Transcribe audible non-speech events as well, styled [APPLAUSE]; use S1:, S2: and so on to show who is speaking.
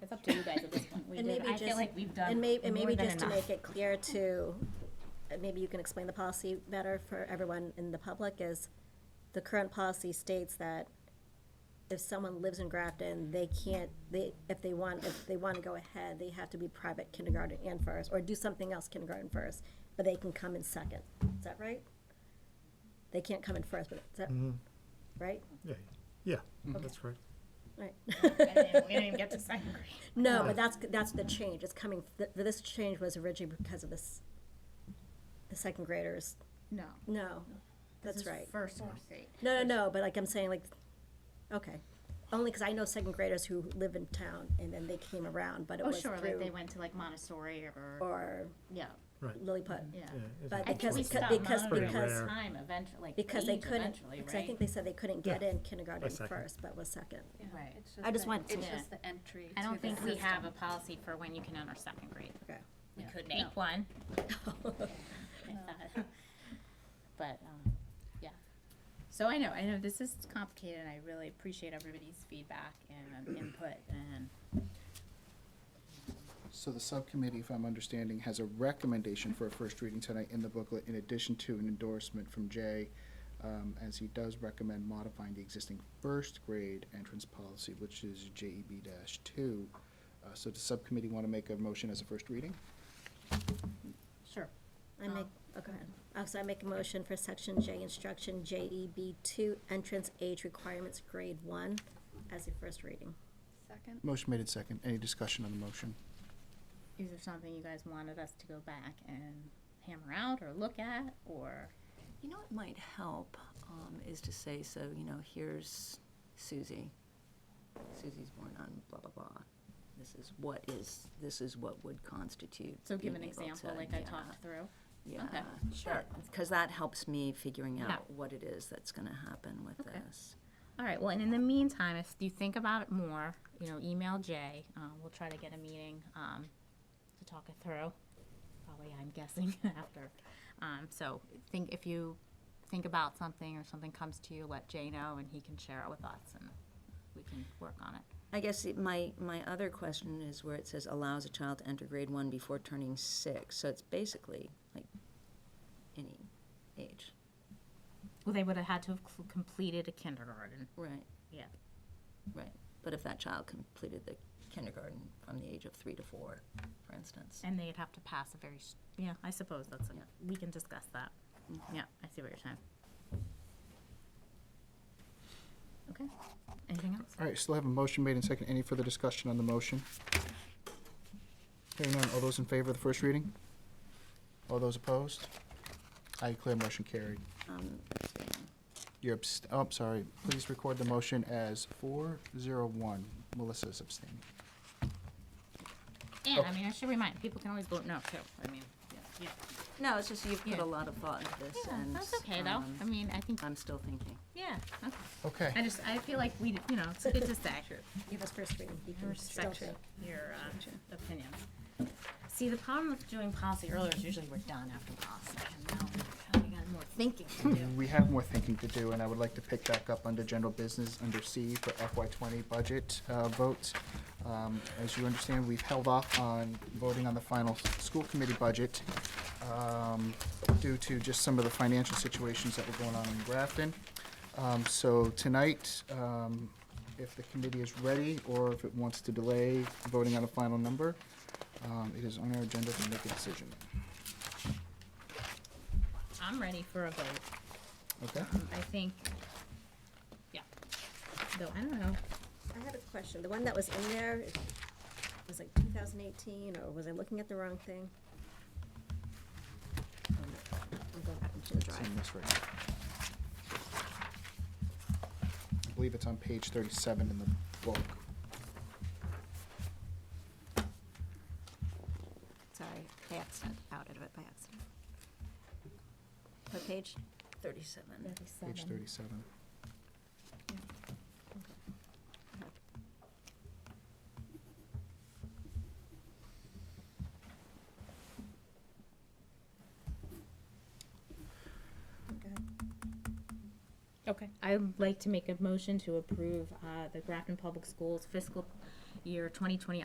S1: up to you guys at this point. We
S2: And
S1: did,
S2: maybe
S1: I feel
S2: just-
S1: like we've done
S2: And
S1: more
S2: maybe, and
S1: than
S2: maybe just to
S1: enough.
S2: make it clear to, uh, maybe you can explain the policy better for everyone in the public, is the current policy states that if someone lives in Grafton, they can't, they, if they want, if they want to go ahead, they have to be private kindergarten and first, or do something else kindergarten first, but they can come in second. Is that right? They can't come in first, but is that, right?
S3: Yeah, yeah, that's correct.
S2: Right.
S4: And then we didn't even get to second grade.
S2: No, but that's, that's the change, it's coming, th- this change was originally because of this, the second graders,
S4: No.
S2: no,
S4: this
S2: that's
S4: is
S2: right.
S4: First grade.
S2: No, no, no, but like I'm saying, like, okay, only because I know second graders who live in town, and then they came around, but it
S4: Oh,
S2: was
S4: sure, like they
S2: through,
S4: went to like Montessori or,
S2: or
S4: yeah,
S3: Right.
S2: Lilliput.
S4: yeah.
S3: Yeah, it's-
S2: But
S3: it's
S2: because-
S4: We
S3: worth it.
S2: because-
S4: stopped
S2: because-
S4: monitoring
S3: because-
S4: the time eventually, like
S2: Because they
S4: age
S2: couldn't,
S4: eventually,
S2: because I
S4: right?
S2: think they said they couldn't get
S3: Yeah.
S2: in kindergarten
S3: second.
S2: first, but was second.
S4: Right.
S2: I just want
S5: It's
S4: to-
S5: just the entry.
S4: I
S5: to
S4: don't
S5: the
S4: think we
S5: system.
S4: have a policy for when you can enter second grade.
S2: Okay.
S4: We
S5: Yeah.
S4: could
S5: No.
S4: make one. [LAUGHS]
S2: [LAUGHS]
S4: But, um, yeah. So I know, I know this is complicated and I really appreciate everybody's feedback and um, input and
S6: So the subcommittee, if I'm understanding, has a recommendation for a first reading tonight in the booklet, in addition to an endorsement from Jay, um, as he does recommend modifying the existing first grade entrance policy, which is JEB two. Uh, so does subcommittee want to make a motion as a first reading?
S4: Sure.
S2: I make, oh, go ahead. Oh, so I make a motion for section J instruction, JEB two, entrance age requirements, grade one, as a first reading.
S5: Second,
S6: Motion made in second. Any discussion on the motion?
S4: Is there something you guys wanted us to go back and hammer out or look at or?
S7: You know what might help um, is to say, so, you know, here's Susie. Susie's born on blah, blah, blah. This is what is, this is what would constitute.
S4: So give an
S7: being able
S4: example
S7: to-
S4: like I
S7: yeah,
S4: talked through.
S7: Yeah.
S4: okay, sure.
S7: Because that helps me figuring
S4: Yeah.
S7: out what it is that's going to happen with
S4: Okay.
S7: this.
S4: All right, well, and in the meantime, if you think about it more, you know, email Jay. Um, we'll try to get a meeting um, to talk it through. Probably, I'm guessing, [LAUGHS] after. Um, so think if you think about something or something comes to you, let Jay know and he can share it with us and we can work on it.
S7: I guess it- my, my other question is where it says allows a child to enter grade one before turning six. So it's basically like any age.
S4: Well, they would have had to have cl- completed a kindergarten.
S7: Right.
S4: Yeah.
S7: Right, but if that child completed the kindergarten from the age of three to four, for instance.
S4: And they'd have to pass a very, s- yeah, I suppose that's, a-
S7: Yeah. Mm-hmm.
S4: we can discuss that. Yeah, I see what you're saying. Okay, anything else?
S6: All right, still have a motion made in second. Any further discussion on the motion? Hearing none. All those in favor of the first reading? All those opposed? I declare motion carried.
S7: Um, abstain.
S6: You're abst- oh, I'm sorry. Please record the motion as four zero one. Melissa's abstaining.
S4: And
S6: Oh.
S4: I mean, I should remind people can always vote no too. I mean, yeah,
S7: No, it's just you've put
S4: Yeah.
S7: a lot of thought into this and.
S4: that's okay though.
S7: um,
S4: I mean, I think
S7: I'm still thinking.
S4: yeah. Okay.
S6: Okay.
S4: I just I feel like we you know it's good to
S7: [LAUGHS]
S4: say.
S2: Give us first reading. you
S4: I
S2: can still
S4: respect
S2: take.
S4: your uh, opinions. See, the problem with doing policy earlier is usually we're done after policy, and now we got more thinking to
S7: [LAUGHS]
S4: do.
S6: We have more thinking to do, and I would like to pick back up under general business, under C for FY twenty budget uh, votes. Um, As you understand, we've held off on voting on the final s- school committee budget um, due to just some of the financial situations that were going on in Grafton. Um, So tonight, um, if the committee is ready, or if it wants to delay voting on a final number, um, it is on our agenda to make a decision.
S4: I'm ready for a vote.
S6: Okay?
S4: Um, I think. Yeah. Though I don't know.
S2: I have a question. The one that was in there it was like 2018, or was I looking at the wrong thing? Oh, no. I'm going back into the
S6: It's
S2: drive.
S6: in this right here. I believe it's on page thirty-seven in the book.
S2: Sorry, I accident, outed it by accident. What page?
S7: Thirty-seven.
S6: Page thirty-seven.
S4: Okay, I'd like to make a motion to approve uh, the Grafton Public Schools fiscal year 2020